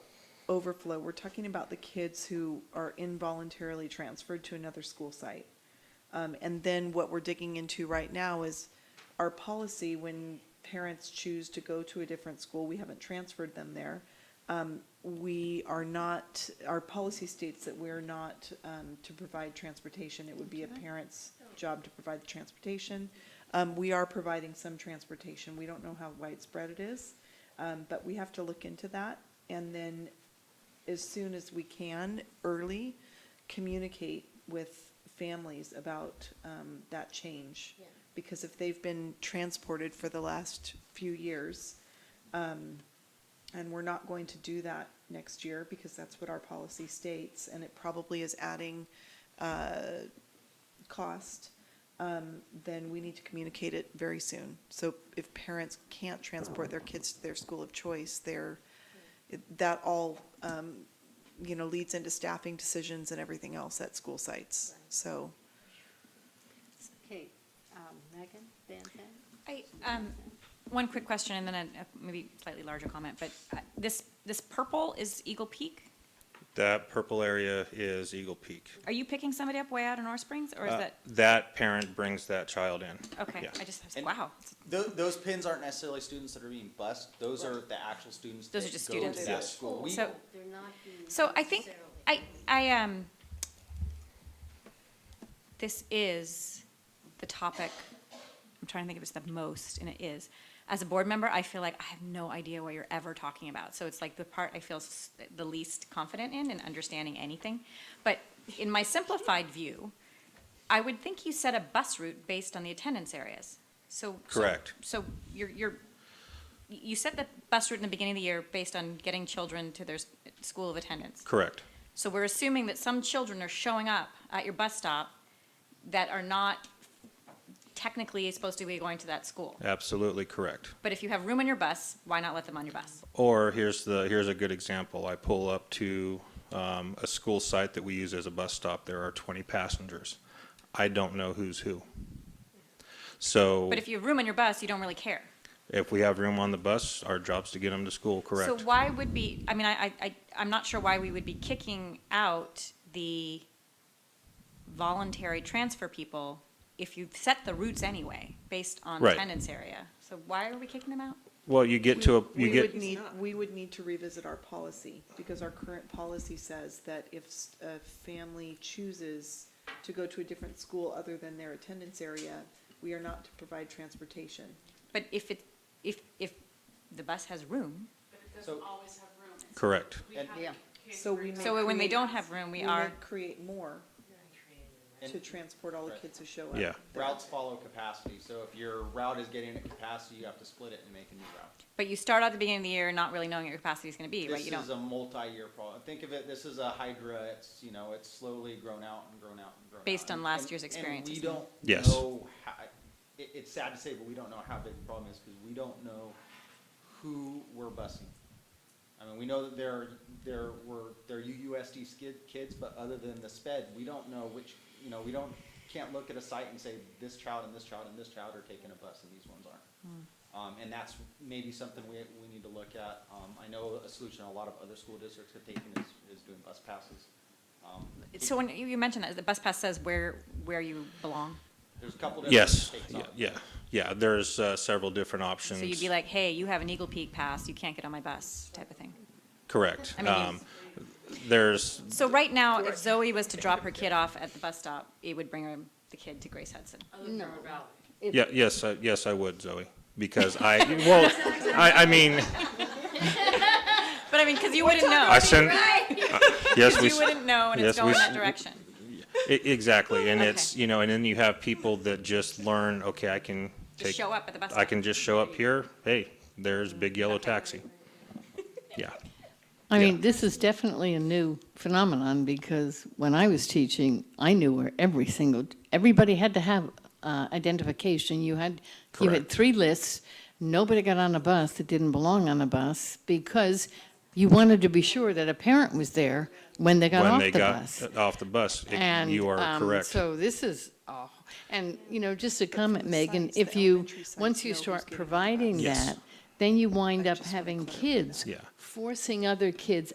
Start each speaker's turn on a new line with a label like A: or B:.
A: overflow, we're talking about the kids who are involuntarily transferred to another school site. Um, and then what we're digging into right now is our policy when parents choose to go to a different school, we haven't transferred them there. Um, we are not, our policy states that we're not, um, to provide transportation. It would be a parent's job to provide the transportation. Um, we are providing some transportation. We don't know how widespread it is. Um, but we have to look into that and then as soon as we can, early, communicate with families about, um, that change.
B: Yeah.
A: Because if they've been transported for the last few years, um, and we're not going to do that next year because that's what our policy states and it probably is adding, uh, cost, um, then we need to communicate it very soon. So if parents can't transport their kids to their school of choice, they're, it- that all, um, you know, leads into staffing decisions and everything else at school sites.
B: Right.
A: So,
B: Okay, um, Megan, Van Ven?
C: I, um, one quick question and then a, a maybe slightly larger comment, but uh, this, this purple is Eagle Peak?
D: That purple area is Eagle Peak.
C: Are you picking somebody up way out in North Springs or is
D: Uh,
C: that,
D: That parent brings that child in.
C: okay,
D: yeah.
C: I just, I was-
E: And-
C: wow.
E: Those, those pins aren't necessarily students that are being bused. Those are the actual students.
C: Those
E: that
C: are just
E: go to
C: students.
E: that
D: Yes.
E: School. We-
C: So-
B: They're not being
C: So I think,
B: necessarily-
C: I, I, um, this is the topic, I'm trying to think if it's the most, and it is. As a board member, I feel like I have no idea what you're ever talking about. So it's like the part I feel s- the least confident in, in understanding anything. But in my simplified view, I would think you set a bus route based on the attendance areas. So. so-
D: Correct.
C: So you're, you're, you set the bus route in the beginning of the year based on getting children to their s- school of attendance.
D: Correct.
C: So we're assuming that some children are showing up at your bus stop that are not technically supposed to be going to that school.
D: Absolutely correct.
C: But if you have room on your bus, why not let them on your bus?
D: Or here's the, here's a good example. I pull up to um, a school site that we use as a bus stop. There are 20 passengers. I don't know who's who. So Oh.
C: But if you have room on your bus, you don't really care.
D: if we have room on the bus, our job's to get them to school,
C: So
D: correct?
C: why would be, I mean, I, I- I, I'm not sure why we would be kicking out the voluntary transfer people if you've set the routes anyway, based on
D: Right.
C: attendance area. So why are we kicking them out?
D: Well, you get to, a you
A: we would
D: get,
A: need, we would need to revisit our policy because our current policy says that if s- a family chooses to go to a different school other than their attendance area, we are not to provide transportation.
C: But if it, if, if the bus has room,
F: But it doesn't
E: So-
F: always have room. It's-
D: correct.
F: We
E: And-
F: have
B: Yeah.
F: kids
A: So
F: who
A: we
F: are
A: may
C: so when they
A: create-
C: don't have room, we
A: may
C: are.
A: Create more to
E: and
A: transport all the kids who show up.
D: Yeah.
E: routes follow capacity. So if your route is getting at capacity, you have to split it and make a new route.
C: But you start out at the beginning of the year not really knowing what your capacity is going to be, right?
E: This
C: You
E: is
C: don't.
E: a multi-year problem. Think of it. This is a hydra. It's you know it's slowly grown out and grown out and grown.
C: Based
E: out.
C: on last
E: And-
C: year's
E: and
C: experiences.
E: we don't
D: Yes.
E: know. How, it, it's sad to say, but we don't know how big the problem is because we don't know who we're busing. I mean, we know that there there were there are UUSD skid kids, but other than the sped, we don't know which you know we don't can't look at a site and say this child and this child and this child are taking a bus and these ones aren't. Um, and that's maybe something we, we need to look at. Um, I know a solution a lot of other school districts have taken is, is doing bus passes. Um,
C: So when you you mentioned that the bus pass says where where you belong,
E: There's a couple. different
D: Yes,
E: takes on
D: yeah,
E: it.
D: yeah, yeah. There's uh, several different options.
C: so you'd be like, hey, you have an Eagle Peak pass, you can't get on my bus, type of thing.
D: Correct.
C: I mean, you-
D: Um, There's,
C: So right now, if Zoe was to drop her kid off at the bus stop, it would bring her the kid to Grace Hudson.
F: Other than River Valley.
B: If-
D: yeah, yes, I- yes, I would, Zoe, because I, well, I, I mean,
C: But I mean, because you wouldn't know,
D: I send, uh, yes, we,
C: you wouldn't know, and
D: yes,
C: it's
D: we
C: going that
D: s-
C: direction.
D: e- exactly, and it's,
C: Okay.
D: you know, and then you have people that just learn, okay, I can
C: Just
D: take,
C: show up at the bus.
D: I
C: stop.
D: can just show up here, hey, there's big yellow
C: Okay.
D: taxi. Yeah,
G: I
D: Yeah.
G: mean, this is definitely a new phenomenon because when I was teaching, I knew where every single everybody had to have uh, identification. You had you had
D: Correct.
G: three lists. Nobody got on a bus that didn't belong on a bus because you wanted to be sure that a parent was there when they got
D: when
G: off
D: they
G: the
D: got
G: bus.
D: off the bus, it-
G: And
D: you are
G: um,
D: correct.
G: So this is, oh, and you know, just a comment, Megan,
A: sites, the
G: if you,
A: elementary sites
G: once
A: know
G: you
A: who's
G: start
A: getting
G: providing
D: Yes.
G: that, then you wind up
A: just wanna
G: having
A: clarify that.
G: kids
D: Yeah.
G: forcing other kids